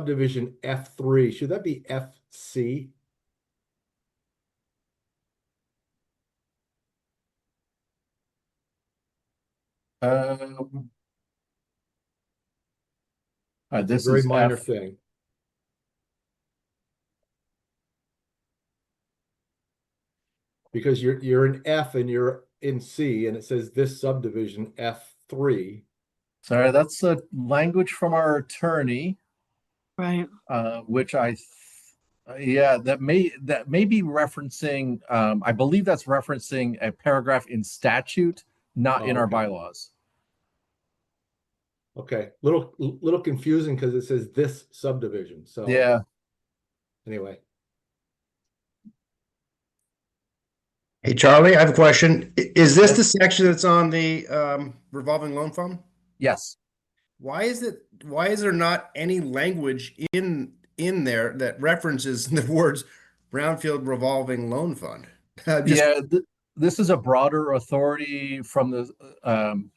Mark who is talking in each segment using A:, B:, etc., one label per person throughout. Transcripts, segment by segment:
A: subdivision F three, should that be FC?
B: Um. Uh, this
A: Very
B: is
A: minor
B: F,
A: thing. Because you're, you're in F and you're in C and it says this subdivision F three.
B: sorry, that's the language from our attorney,
C: Right,
B: uh, which I. th- uh, Yeah, that may, that may be referencing, um, I believe that's referencing a paragraph in statute, not in
A: Oh,
B: our
A: okay.
B: bylaws.
A: Okay, little, little confusing because it says this subdivision, so.
B: Yeah,
A: Anyway,
D: Hey, Charlie, I have a question. I- Is this the section that's on the um, revolving loan fund?
B: yes,
D: Why is it, why is there not any language in, in there that references the words Brownfield Revolving Loan Fund? I uh, just-
B: yeah, th- this is a broader authority from the, um.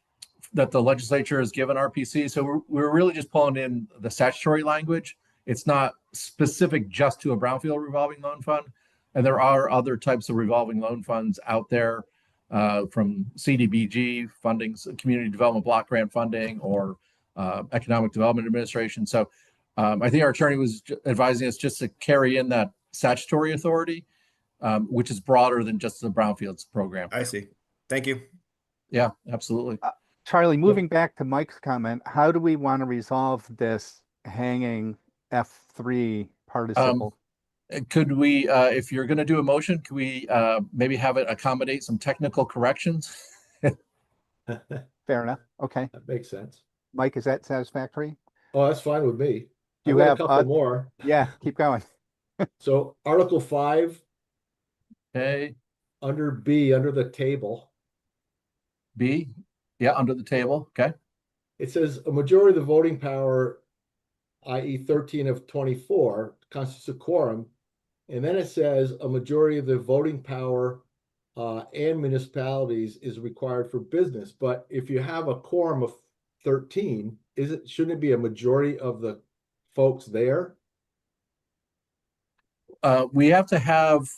B: That the legislature has given RPC, so we're, we're really just pulling in the statutory language. It's not specific just to a brownfield revolving loan fund. And there are other types of revolving loan funds out there, uh, from CDBG fundings, community development block grant funding, or uh, Economic Development Administration. So um, I think our attorney was ju- advising us just to carry in that statutory authority, um, which is broader than just the brownfields program.
D: I see. Thank you.
B: Yeah, absolutely.
E: Charlie, moving back to Mike's comment, how do we want to resolve this hanging F three participle?
B: Uh, Could we, uh, if you're going to do a motion, could we uh, maybe have it accommodate some technical corrections?
A: that
E: Fair enough. Okay.
A: makes sense.
E: Mike, is that satisfactory?
A: Oh, that's fine with me. I
E: You
A: got a
E: have,
A: Couple
E: uh,
A: more.
E: Yeah, keep going.
A: So Article five,
B: Okay,
A: under B, under the table.
B: B, yeah, under the table, okay?
A: It says a majority of the voting power, i.e. thirteen of twenty-four, constitutes a quorum. And then it says a majority of the voting power uh, and municipalities is required for business. But if you have a quorum of thirteen, is it, shouldn't it be a majority of the folks there?
B: Uh, We have to have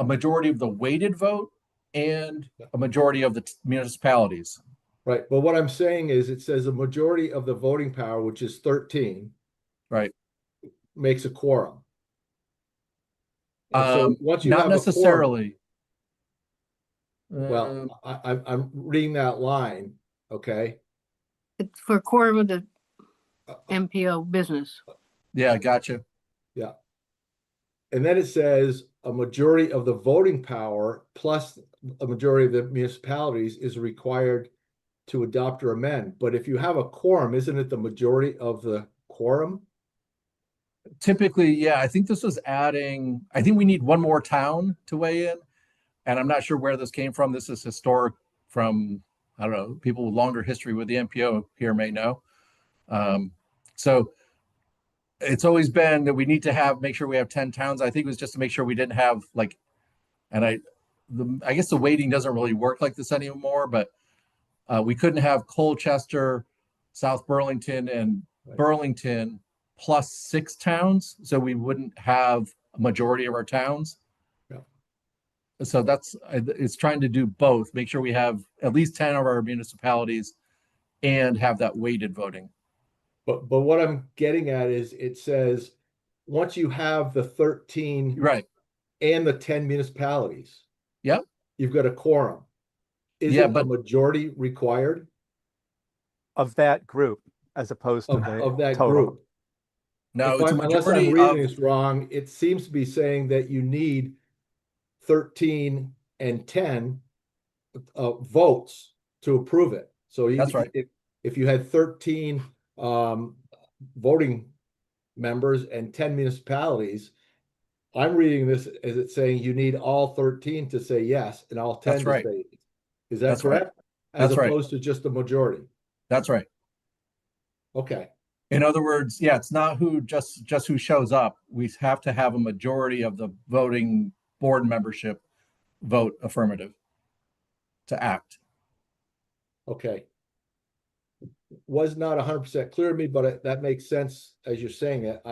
B: a majority of the weighted vote and a majority of the t- municipalities.
A: Right, but what I'm saying is it says a majority of the voting power, which is thirteen.
B: Right.
A: Makes a quorum. And so
B: Um,
A: once you have
B: Not
A: a quorum-
B: necessarily. Um,
A: Well, I, I, I'm reading that line, okay?
C: it's for core of the
A: Uh,
C: MPO business.
B: Yeah, gotcha.
A: And then it says a majority of the voting power plus a majority of the municipalities is required to adopt or amend. But if you have a quorum, isn't it the majority of the quorum?
B: Typically, yeah, I think this was adding, I think we need one more town to weigh in. And I'm not sure where this came from. This is historic from, I don't know, people with longer history with the MPO here may know. Um, so it's always been that we need to have, make sure we have 10 towns. I think it was just to make sure we didn't have like, and I, the, I guess the weighting doesn't really work like this anymore, but uh, we couldn't have Colchester, South Burlington and
A: Right.
B: Burlington plus six towns. So we wouldn't have a majority of our towns.
A: Yeah.
B: So that's, I- it's trying to do both, make sure we have at least 10 of our municipalities and have that weighted voting.
A: But, but what I'm getting at is it says, once you have the thirteen
B: Right.
A: and the ten municipalities.
B: Yep.
A: You've got a quorum.
B: Yeah,
A: Isn't a
B: but-
A: majority required
E: Of that group as opposed to
A: of,
E: the
A: of that
E: total.
A: group?
B: No,
A: If
B: it's uh, a
A: I'm- unless
B: majority
A: I'm
B: of,
A: reading this wrong, it seems to be saying that you need thirteen and ten uh, votes to approve it. So you-
B: That's right.
A: If, if you had thirteen um, voting members and ten municipalities, I'm reading this as it's saying you need all thirteen to say yes and all ten
B: That's
A: to
B: right.
A: say. Is that
B: That's right.
A: correct? As
B: That's right.
A: opposed to just the majority.
B: that's right.
A: Okay,
B: In other words, yeah, it's not who just just who shows up. We have to have a majority of the voting board membership vote affirmative to act.
A: okay. Was not hundred percent clear to me, but it- that makes sense as you're saying it.